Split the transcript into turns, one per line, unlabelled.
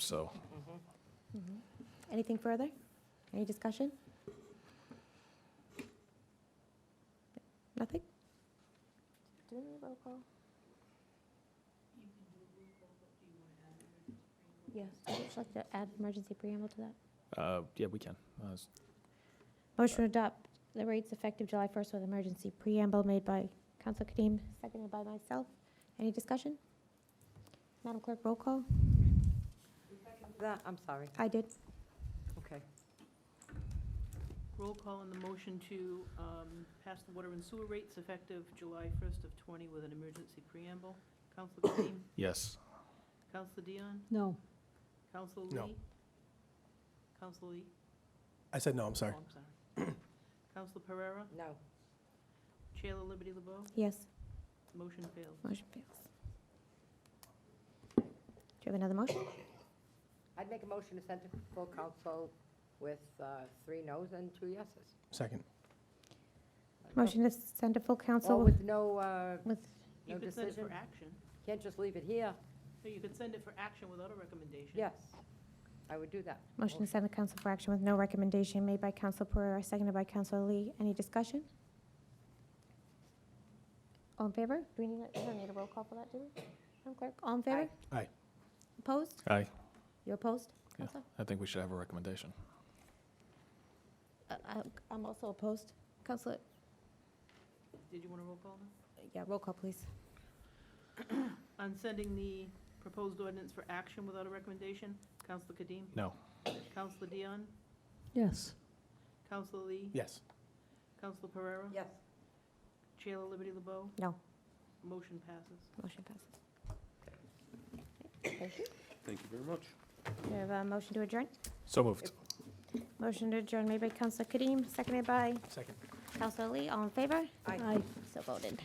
So,
Mm-hmm. Anything further? Any discussion? Nothing? Do we need a roll call? Yes, would you like to add emergency preamble to that?
uh, yeah, we can. Uh, s-
Motion to adopt the rates effective July 1st with emergency preamble made by Council Kadeem, seconded by myself. Any discussion? Madam Clerk, roll call?
That, I'm sorry,
I did.
okay.
Roll call on the motion to um, pass the water and sewer rates effective July 1st of '20 with an emergency preamble. Counselor Kadeem?
Yes.
Counselor Dion?
No.
Counselor
No.
Lee? Counselor Lee?
I said no, I'm
Oh,
sorry.
I'm sorry. Counselor Pereira?
No.
Chair La Liberty LeBeau?
Yes,
Motion fails.
motion fails. Do you have another motion?
I'd make a motion to send to full council with uh, three noes and two yeses.
Second.
Motion to send to full
Or
council
with no, uh,
with,
No
You could send it for
decision.
action.
can't just leave it here,
No, you could send it for action without a recommendation.
yes, I would do that.
motion to send to council for action with no recommendation made by Council Pereira, seconded by Council Lee. Any discussion? All in favor? Do we need, a- we don't need a roll call for that, do we? Madam Clerk, all in favor?
Aye.
Opposed?
Aye.
You opposed?
Yeah.
Council?
I think we should have a recommendation.
Uh, I- I'm also opposed. Council,
Did you want to roll call now?
yeah, roll call, please.
On sending the proposed ordinance for action without a recommendation, Counselor Kadeem?
No.
Counselor Dion?
Yes.
Counselor Lee?
Yes.
Counselor Pereira?
Yes.
Chair La Liberty LeBeau?
No.
Motion passes.
Motion passes. Okay, Thank you.
Thank you very much.
Do we have a motion to adjourn?
So moved.
Motion to adjourn made by Council Kadeem, seconded by
Second.
Council Lee. All in favor?
Aye.
So voted.